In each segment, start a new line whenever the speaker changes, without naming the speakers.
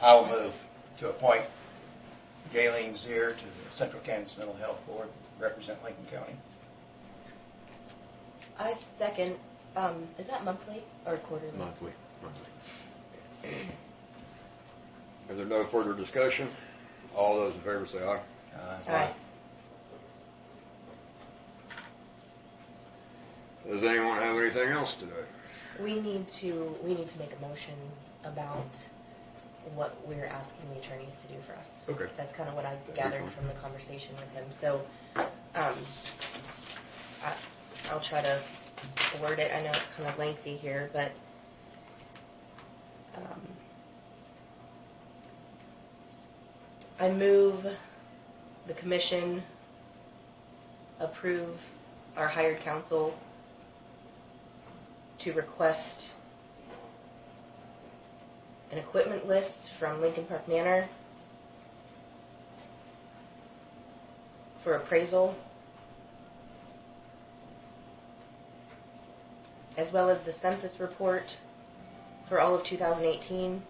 I'll move to appoint Galen Zier to the Central Kansas Mental Health Board, represent Lincoln County.
I second, um, is that monthly or quarterly?
Monthly, monthly. Is there no further discussion? All those in favor say aye.
Uh,
Aye.
Does anyone have anything else today?
We need to, we need to make a motion about what we're asking the attorneys to do for us.
Okay.
That's kind of what I
be
gathered
fine.
from the conversation with him, so, um, I, I'll try to word it, I know it's kind of lengthy here, but, um, I move the commission approve our hired counsel to request an equipment list from Lincoln Park Manor for appraisal, as well as the census report for all of 2018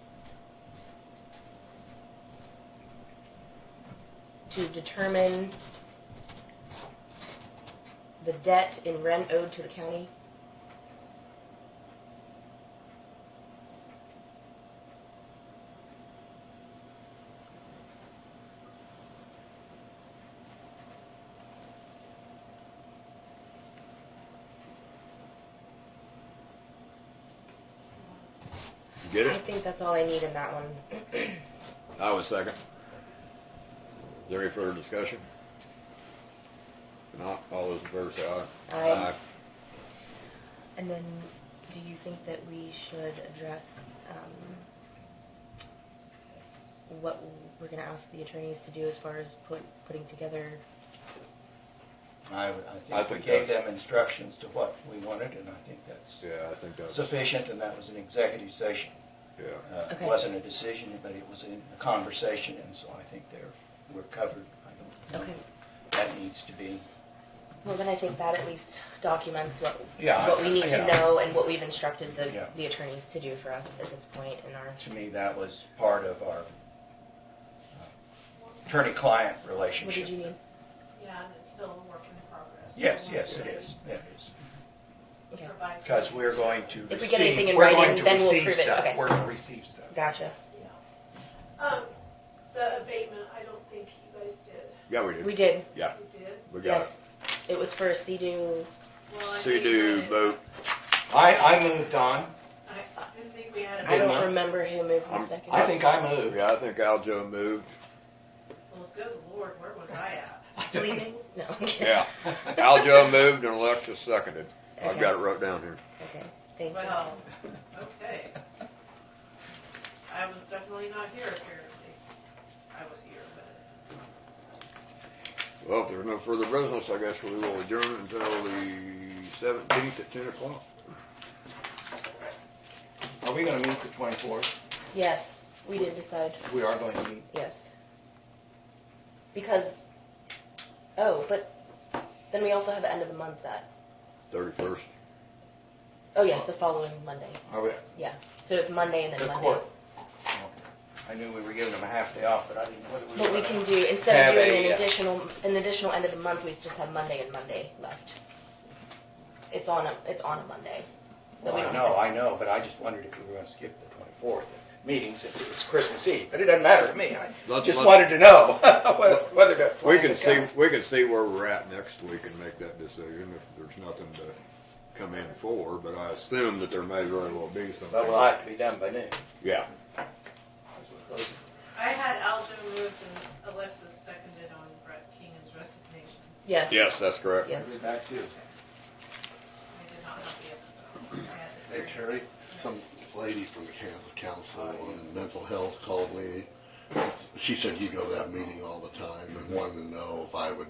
to determine the debt in rent owed to the county.
You Get
I
it?
think that's all I need in that one.
I was second. Is there any further discussion? If not, all those in favor say aye.
Aye. And then, do you think that we should address um, what we're going to ask the attorneys to do as far as put, putting together?
I, would- I
I
think we
think
gave
that's-
them instructions to what we wanted, and I think that's
Yeah, I think that's,
sufficient, and that was an executive session.
yeah.
Uh, It
Okay.
wasn't a decision, but it was in a conversation, and so I think they're, we're covered. I don't think That needs to be,
Well, then I think that at least documents what
Yeah,
what we need to
yeah.
know and what we've instructed the,
Yeah.
the attorneys to do for us at this point in our.
to me, that was part of our uh, attorney-client
What
relationship.
did you need?
Yeah, and it's still a work in progress.
Yes,
So
yes, it
once
is, it is.
we
Okay,
provide-
Because we're going to
If we get
receive,
anything in
we're going
writing,
to
then we'll
receive
prove it.
stuff.
Okay.
We're going to receive stuff.
gotcha.
Yeah. Um, the abatement, I don't think you guys did.
Yeah, we did.
We did.
Yeah,
You did?
we got it.
Yes, it was for a CDU.
Well, I think
Sea-Doo
I-
boat.
I, I moved on.
I didn't think we had.
I
a
Didn't
don't
we?
remember who moved in
I'm-
second.
I think I moved.
Yeah, I think Aljo moved.
Well, good lord, where was I at?
Sleeping? No. I'm kidding.
Yeah. Aljo moved and Alexis seconded. I've got it wrote down here.
Okay, thank you.
Well, um, okay. I was definitely not here apparently. I was here, but
Well, if there's no further business, I guess we will adjourn until the seventeenth at ten o'clock.
Are we going to meet the 24th?
Yes, we did decide,
We are going to meet.
yes. Because, oh, but then we also have the end of the month that,
Thirty-first.
oh yes, the following Monday,
Are we?
yeah. So it's Monday and then
Oh, The
Monday.
court. I knew we were giving them a half day off, but I didn't know whether we were.
But we can
gonna-
do, instead of
Have
doing
a,
an
uh,
additional, an additional end of the month, we just have Monday and Monday left. It's on a, it's on a Monday, so
Well,
we
I
don't
know,
have
I know, but I just wondered if we were going to skip the 24th meeting since it was Christmas Eve. But it doesn't matter to me. I
Let's-
just
let's-
wanted to know whether- whether to.
We
plan
can
to
see,
come.
we can see where we're at next week and make that decision if there's nothing to come in for, but I assume that there may very well be something.
But we'll have to be done by noon.
Yeah,
I had Aljo moved and Alexis seconded on Brett Keenan's resignation.
to, yes.
yes, that's correct.
Yes.
back to you.
I did not have the other. vote. I had the
Hey,
third.
Terry, some lady from the Kansas Council
Oh,
on Mental Health called me. She said you go to that meeting all the time and wanted to know if I would,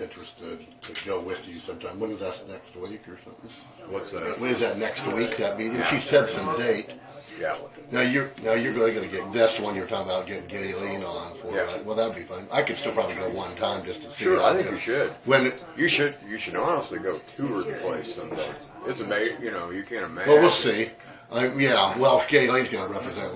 interested to go with you sometime. When is that, next week or something?
What's that?
When is that,
uh,
next week, that meeting? She said some date.
Yeah,
Now you're, now you're really gonna get, that's the one you're talking about getting Galen on for,
Yeah.
right? Well, that'd be fun. I could still probably go one time just to see.
sure,
how
I think
it
you
is.
should.
When, it-
You should, you should honestly go tour the place someday. It's amazing, you know, you can't imagine.
well, we'll see. I, yeah, well, if Galen's gonna represent